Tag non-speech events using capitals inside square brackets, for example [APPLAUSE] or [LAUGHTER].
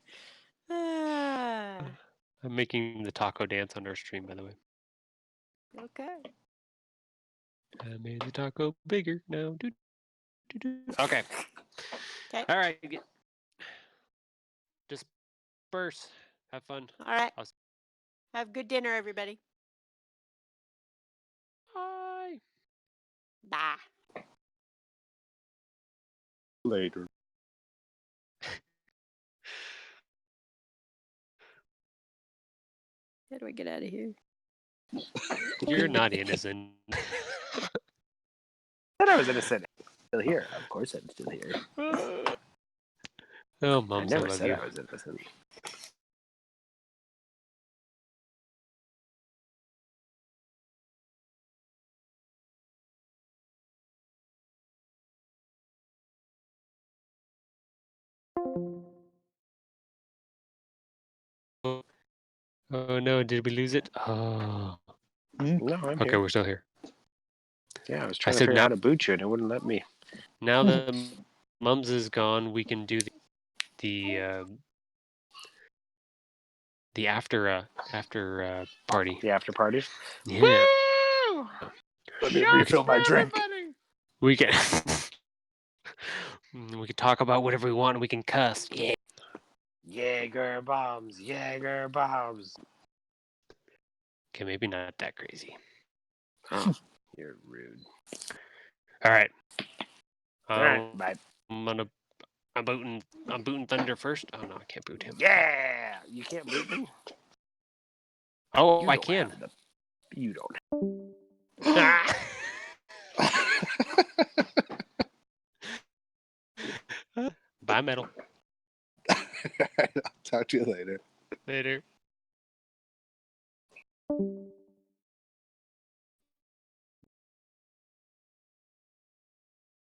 Ah, I'm making the taco dance on our stream, by the way. Okay. I made the taco bigger now. Doo, doo, doo. Okay. 'Kay. All right. Get... Disperse. Have fun. All right. Awesome. Have good dinner, everybody. Bye. Bye. Later. How do I get out of here? [LAUGHS] You're not innocent. But I was innocent. Still here. Of course I'm still here. oh, I mums, I never love said you. I was innocent. Oh no, did we lose it? Oh. No, I'm Okay, here. we're still here. Yeah, I was trying to said figure no. out how to boot you and it wouldn't let me. [LAUGHS] Now that mums is gone, we can do the the uh, the after uh, after uh, party. The after party. Yeah. Let me refill my drink. We can [LAUGHS] Mm, we can talk about whatever we want. and We can cuss. Yeah. Jaeger bombs. Jaeger bombs. Okay, maybe not that crazy. You're rude. All right. All right, Um, bye. I'm gonna. I'm booting. I'm booting Thunder first. Oh no, I can't boot him. Yeah, you can't boot me. Oh, You I don't can. have the- you don't. Ah. Bye, metal. I'll talk to you later. Later.